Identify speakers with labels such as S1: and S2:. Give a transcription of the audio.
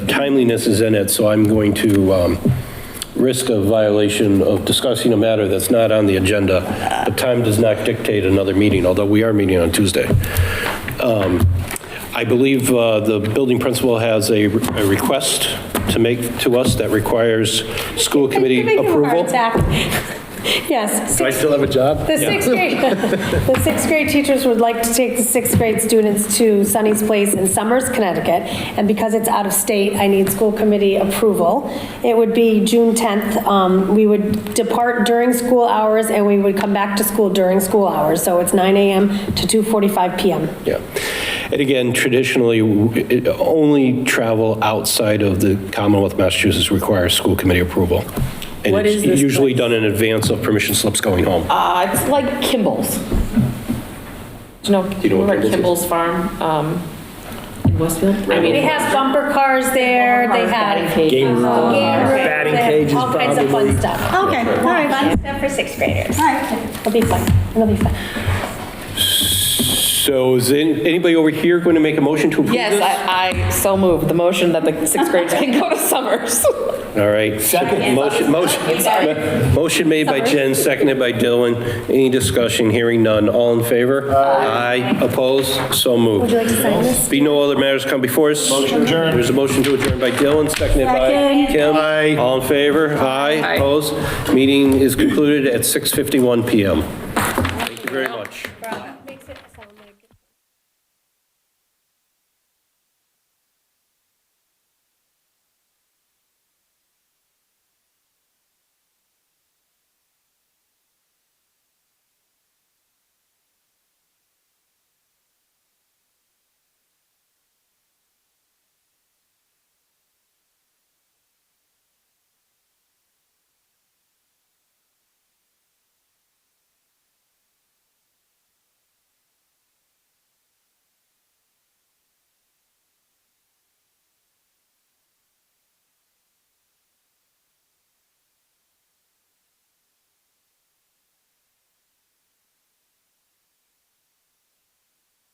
S1: timeliness is in it, so I'm going to um, risk a violation of discussing a matter that's not on the agenda. But time does not dictate another meeting, although we are meeting on Tuesday. Um, I believe uh, the building principal has a a request to make to us that requires school committee
S2: Giving you a heart
S1: approval.
S2: attack. Yes.
S1: Do I
S2: six-
S1: still have a job?
S2: The sixth grade, the sixth grade teachers would like to take the sixth grade students to Sunny's Place in Summers, Connecticut. And because it's out of state, I need school committee approval. It would be June 10th. Um, We would depart during school hours and we would come back to school during school hours. So it's 9 AM to 2:45 PM.
S1: Yeah. And again, traditionally, w- it- only travel outside of the Commonwealth of Massachusetts requires school committee approval. And
S3: What
S1: it's
S3: is this
S1: usually done in advance of permission slips going home.
S3: Uh, it's like Kimball's. Do you know,
S1: you know what
S3: remember
S1: Kimball's
S3: Kimball's Farm, um, in Westfield? I mean,
S2: They have bumper cars there, they have. Game
S3: Game room.
S2: room,
S4: Batting
S2: they have
S4: cages,
S2: All kinds of fun stuff.
S5: Okay, all right,
S2: Fun stuff for sixth graders.
S5: all right.
S2: It'll be fun, it'll be fun.
S1: So is an- anybody over here going to make a motion to approve this?
S3: Yes, I, I so moved the motion that the sixth graders can go to Summers.
S1: All right. Motion, motion, motion made by Jen, seconded by Dylan. Any discussion? Hearing none. All in favor? Aye. Opposed? So moved.
S2: Would you like to sign this?
S1: Be no other matters come before us. Motion adjourned. There's a motion to adjourn by Dylan, seconded by
S5: Second.
S1: Kim. Aye. All in favor? Aye. Opposed? Meeting is concluded at 6:51 PM. Thank you very much.